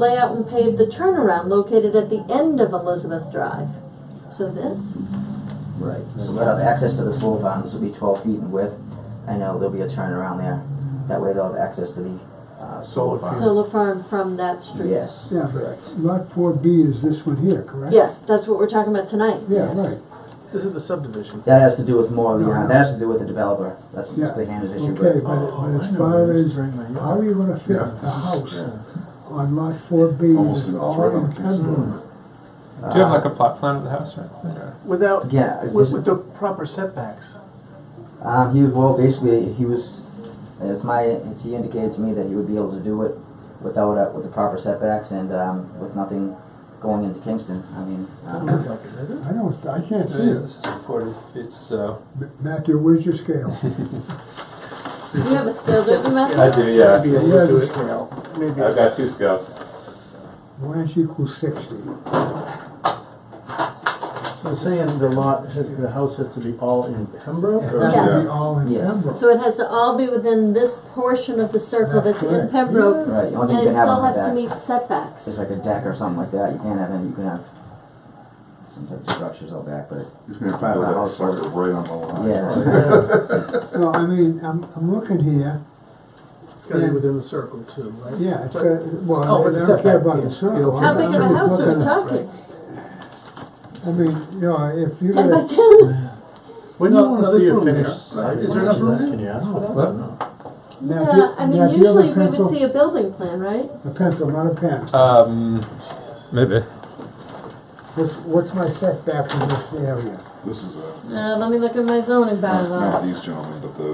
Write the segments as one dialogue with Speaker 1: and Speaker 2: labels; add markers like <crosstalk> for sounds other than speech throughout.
Speaker 1: lay out and pave the turnaround located at the end of Elizabeth Drive. So this,
Speaker 2: Right, so they'll have access to the slow barn, this will be twelve feet in width, I know there'll be a turnaround there, that way they'll have access to the, uh, solar
Speaker 3: Solar
Speaker 2: farm.
Speaker 1: solar farm from that street.
Speaker 2: Yes,
Speaker 4: Yeah.
Speaker 2: correct.
Speaker 4: Lot four B is this one here, correct?
Speaker 1: Yes, that's what we're talking about tonight.
Speaker 4: Yeah, right,
Speaker 3: This is the subdivision.
Speaker 2: That has to do with more of the,
Speaker 4: No,
Speaker 2: uh,
Speaker 4: no.
Speaker 2: that has to do with the developer, that's, that's
Speaker 4: Yeah.
Speaker 2: the Hannah's issue,
Speaker 4: okay,
Speaker 2: but,
Speaker 4: but, but as far as, how are you gonna fit
Speaker 5: Yeah.
Speaker 4: the house
Speaker 5: Yeah.
Speaker 4: on lot four B,
Speaker 5: Almost
Speaker 4: it's
Speaker 5: in- it's
Speaker 4: all
Speaker 5: right on
Speaker 4: in
Speaker 5: the-
Speaker 4: Pembroke?
Speaker 6: Do you have
Speaker 2: uh,
Speaker 6: like a plot plan of the house or anything? or-
Speaker 3: Without,
Speaker 2: Yeah,
Speaker 3: with,
Speaker 2: this-
Speaker 3: with the proper setbacks.
Speaker 2: um, he, well, basically, he was, it's my, it's, he indicated to me that he would be able to do it without, uh, with the proper setbacks and, um, with nothing going into Kingston, I mean, um,
Speaker 4: I don't, th- I can't see
Speaker 6: Yeah,
Speaker 4: it.
Speaker 6: this is forty feet, so.
Speaker 4: M- Matthew, where's your scale? <laughs>
Speaker 1: Do you have a scale, don't you, Matthew?
Speaker 6: I do, yeah.
Speaker 3: Maybe a
Speaker 4: Yeah,
Speaker 3: little
Speaker 4: just-
Speaker 3: bit, maybe
Speaker 6: I've got two scales.
Speaker 4: One inch equals sixty.
Speaker 7: So saying the lot, has- the house has to be all in Pembroke?
Speaker 4: It
Speaker 7: or-
Speaker 4: has to
Speaker 1: Yes.
Speaker 4: be all in
Speaker 2: Yeah.
Speaker 4: Pembroke.
Speaker 1: So it has to all be within this portion of the circle
Speaker 4: That's
Speaker 1: that's in
Speaker 4: correct.
Speaker 1: Pembroke,
Speaker 2: right, the only
Speaker 1: and
Speaker 2: thing
Speaker 1: it
Speaker 2: you can have
Speaker 1: still
Speaker 2: on
Speaker 1: has to
Speaker 2: that
Speaker 1: meet setbacks.
Speaker 2: is like a deck or something like that, you can't have any, you can have some type of structures out back, but
Speaker 5: He's gonna have to build that sucker right on the line.
Speaker 2: Yeah.
Speaker 4: So, I mean, I'm, I'm looking here,
Speaker 7: It's gotta be within the circle too, right?
Speaker 4: yeah, it's,
Speaker 7: But-
Speaker 4: got- well,
Speaker 7: Oh,
Speaker 4: I
Speaker 7: it's
Speaker 4: don't care
Speaker 7: setback,
Speaker 4: about
Speaker 7: yeah.
Speaker 4: the circle.
Speaker 1: How big of
Speaker 4: I'm
Speaker 1: a
Speaker 4: just
Speaker 1: house are
Speaker 4: looking
Speaker 1: we
Speaker 4: at-
Speaker 1: talking?
Speaker 4: I mean, you know, if you
Speaker 1: Ten by
Speaker 4: got a,
Speaker 1: ten?
Speaker 3: When do you
Speaker 7: No,
Speaker 3: wanna
Speaker 7: no,
Speaker 3: see
Speaker 7: this
Speaker 3: it
Speaker 7: room here.
Speaker 3: finished?
Speaker 7: Right.
Speaker 3: Is there enough room there?
Speaker 7: Can you ask for that?
Speaker 6: What?
Speaker 7: No.
Speaker 4: Now,
Speaker 1: Yeah,
Speaker 4: do-
Speaker 1: I
Speaker 4: now,
Speaker 1: mean,
Speaker 4: do you have a
Speaker 1: usually we
Speaker 4: pencil?
Speaker 1: would see a building plan, right?
Speaker 4: a pencil, not a pen,
Speaker 5: Uh,
Speaker 6: Um, maybe.
Speaker 4: what's, what's my setback in this area?
Speaker 5: This is a,
Speaker 1: Uh, let me look at my zoning
Speaker 5: not
Speaker 1: bylaws.
Speaker 5: these gentlemen, but the,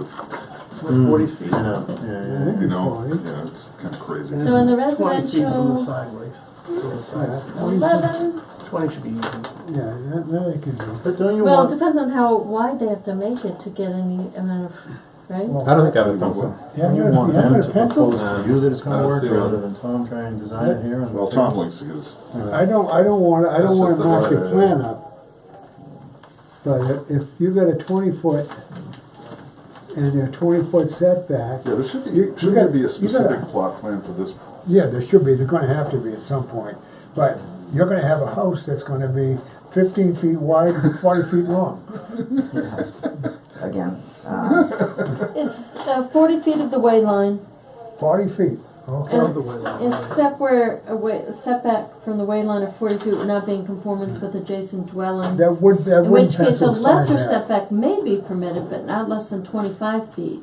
Speaker 3: Like forty feet?
Speaker 4: I think
Speaker 5: uh, you
Speaker 4: it's
Speaker 5: know,
Speaker 4: forty.
Speaker 5: yeah, it's kinda crazy.
Speaker 1: So in the
Speaker 3: Twenty feet from the
Speaker 1: residential,
Speaker 3: sideways. From the side.
Speaker 4: Yeah, forty-
Speaker 1: eleven,
Speaker 3: Twenty should be easy.
Speaker 4: Yeah, that, that I can do.
Speaker 7: But don't you
Speaker 1: well, it
Speaker 7: want,
Speaker 1: depends on how wide they have to make it to get any amount of, right?
Speaker 6: I don't think I have a pencil.
Speaker 4: Yeah, I'm
Speaker 7: you
Speaker 4: gonna,
Speaker 7: want
Speaker 4: yeah, I'm
Speaker 7: them
Speaker 4: gonna
Speaker 7: to
Speaker 4: pencil.
Speaker 7: propose to you that it's
Speaker 6: I
Speaker 7: gonna
Speaker 6: don't
Speaker 7: work
Speaker 6: see
Speaker 7: rather
Speaker 6: one.
Speaker 7: than Tom trying to design it here and.
Speaker 5: Well, Tom likes to get his,
Speaker 4: I don't, I don't wanna, I don't
Speaker 6: That's
Speaker 4: wanna
Speaker 6: just the
Speaker 4: knock your
Speaker 6: word.
Speaker 4: plan up. But if- if you got a twenty foot and a twenty foot setback,
Speaker 5: yeah, there should be,
Speaker 4: You- you
Speaker 5: should
Speaker 4: gotta-
Speaker 5: there be
Speaker 4: you
Speaker 5: a specific
Speaker 4: gotta-
Speaker 5: plot plan for this?
Speaker 4: yeah, there should be, they're gonna have to be at some point. But you're gonna have a house that's gonna be fifteen feet wide and forty feet long.
Speaker 2: <laughs> again, um,
Speaker 1: It's uh, forty feet of the way line,
Speaker 4: Forty feet,
Speaker 1: and
Speaker 4: okay?
Speaker 3: the way line.
Speaker 1: it's- except where a way, setback from the way line of forty feet would not be in conformance with adjacent dwellings.
Speaker 4: That would, that
Speaker 1: In
Speaker 4: would
Speaker 1: which case, a
Speaker 4: pencil
Speaker 1: lesser
Speaker 4: fine there.
Speaker 1: setback may be permitted, but not less than twenty-five feet.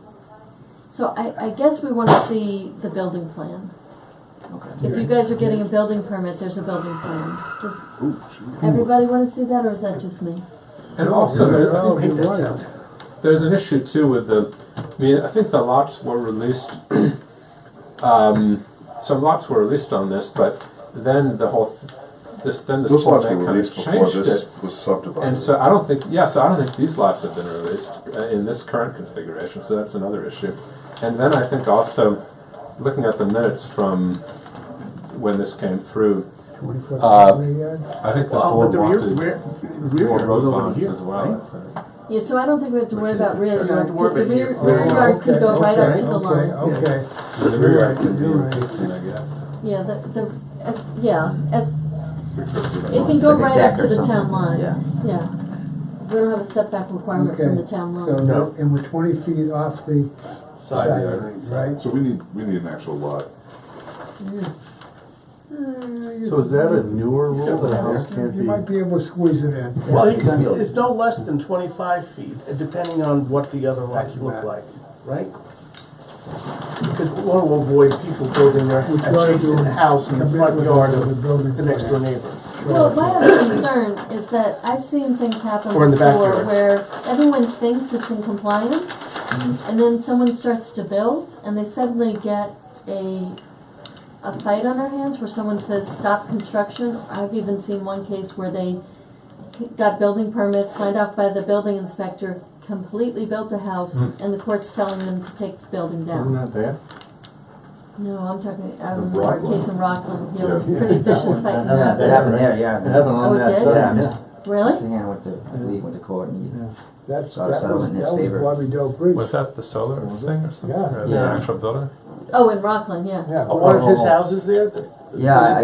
Speaker 1: So I, I guess we wanna see the building plan.
Speaker 2: okay.
Speaker 1: If you guys are getting a building permit, there's a building plan. Does
Speaker 5: Ooh, shoot.
Speaker 1: everybody wanna see that, or is that just me?
Speaker 6: And
Speaker 4: No,
Speaker 6: also,
Speaker 4: you're
Speaker 6: there- I
Speaker 4: right,
Speaker 6: think
Speaker 4: oh, you're right.
Speaker 6: there's an issue too with the, I mean, I think the lots were released, <clears throat> um, some lots were released on this, but then the whole, this, then the
Speaker 5: Those
Speaker 6: school
Speaker 5: lots were
Speaker 6: bank kind
Speaker 5: released
Speaker 6: of
Speaker 5: before
Speaker 6: changed
Speaker 5: this
Speaker 6: it.
Speaker 5: was
Speaker 6: And
Speaker 5: subdivided.
Speaker 6: so I don't think, yeah, so I don't think these lots have been released uh, in this current configuration, so that's another issue. And then I think also, looking at the minutes from when this came through,
Speaker 4: Twenty foot,
Speaker 6: Uh,
Speaker 4: yeah.
Speaker 6: I think the
Speaker 3: Well, but
Speaker 6: board
Speaker 3: the rear,
Speaker 6: wanted
Speaker 3: rear,
Speaker 6: more
Speaker 3: rear yard was
Speaker 6: road
Speaker 3: over
Speaker 6: bonds
Speaker 3: here,
Speaker 6: as well,
Speaker 3: right?
Speaker 6: I think.
Speaker 1: Yeah, so I don't think we have to worry about rear
Speaker 6: You don't
Speaker 1: yard,
Speaker 3: have to worry
Speaker 1: because the
Speaker 3: about
Speaker 1: rear,
Speaker 3: your-
Speaker 1: rear
Speaker 4: Oh,
Speaker 1: yard could
Speaker 4: okay,
Speaker 1: go right up
Speaker 4: okay,
Speaker 1: to the
Speaker 4: okay,
Speaker 1: line.
Speaker 4: Okay,
Speaker 6: The rear yard could be
Speaker 4: You're right.
Speaker 6: existing, I guess.
Speaker 1: Yeah, the, the, as, yeah, as, it can
Speaker 2: It's
Speaker 1: go
Speaker 2: like a
Speaker 1: right
Speaker 2: deck
Speaker 1: up to
Speaker 2: or
Speaker 1: the town
Speaker 2: something,
Speaker 1: line,
Speaker 2: yeah.
Speaker 1: yeah. We don't have a setback requirement from the
Speaker 4: okay.
Speaker 1: town
Speaker 4: So,
Speaker 1: line.
Speaker 4: now- and we're twenty feet off the side
Speaker 6: Side yard.
Speaker 4: line, right?
Speaker 5: So we need, we need an actual lot.
Speaker 7: so is that a newer rule that a house can't
Speaker 4: You
Speaker 7: be?
Speaker 4: might be able to squeeze it in.
Speaker 3: Well,
Speaker 2: it's gonna be
Speaker 3: it-
Speaker 2: a-
Speaker 3: it's no less than twenty-five feet, uh, depending on what the other lots
Speaker 4: Thank you,
Speaker 3: look
Speaker 4: Matt.
Speaker 3: like, right? Because we want to avoid people building their
Speaker 4: We try to
Speaker 3: adjacent
Speaker 4: do-
Speaker 3: house in the
Speaker 4: commit
Speaker 3: front
Speaker 4: with
Speaker 3: yard
Speaker 4: the-
Speaker 3: of
Speaker 4: the building
Speaker 3: the next door
Speaker 4: plan.
Speaker 3: neighbor.
Speaker 1: Well, my other concern is that I've seen things happen
Speaker 3: Or in the
Speaker 1: before
Speaker 3: backyard.
Speaker 1: where everyone thinks it's in compliance, and then someone starts to build, and they suddenly get a, a fight on their hands where someone says, stop construction. I've even seen one case where they got building permits signed off by the building inspector, completely built a house, and the court's telling them to take the building
Speaker 7: Isn't
Speaker 1: down.
Speaker 7: that there?
Speaker 1: No, I'm talking, I
Speaker 5: In
Speaker 1: remember a
Speaker 5: Rockland.
Speaker 1: case in Rockland, yeah, it was a
Speaker 5: Yeah.
Speaker 1: pretty vicious
Speaker 7: one.
Speaker 1: fight in
Speaker 7: That
Speaker 1: Rockland.
Speaker 2: That happened there, yeah.
Speaker 7: It happened
Speaker 1: Oh,
Speaker 7: on
Speaker 1: it
Speaker 7: that
Speaker 1: did?
Speaker 7: side.
Speaker 2: Yeah, Mr.
Speaker 1: Really?
Speaker 2: Hand went to, I believe, went to court and
Speaker 4: That's,
Speaker 2: Our
Speaker 4: that was, that
Speaker 2: settlement is
Speaker 4: was
Speaker 2: favored.
Speaker 4: Bobby Doe Bridge.
Speaker 6: Was that the solar thing or something,
Speaker 4: Yeah.
Speaker 6: or the
Speaker 2: Yeah.
Speaker 6: actual building?
Speaker 1: Oh, in Rockland, yeah.
Speaker 4: Yeah,
Speaker 3: Uh, One
Speaker 4: Bobby-
Speaker 3: of his houses there, the-
Speaker 2: Yeah, I,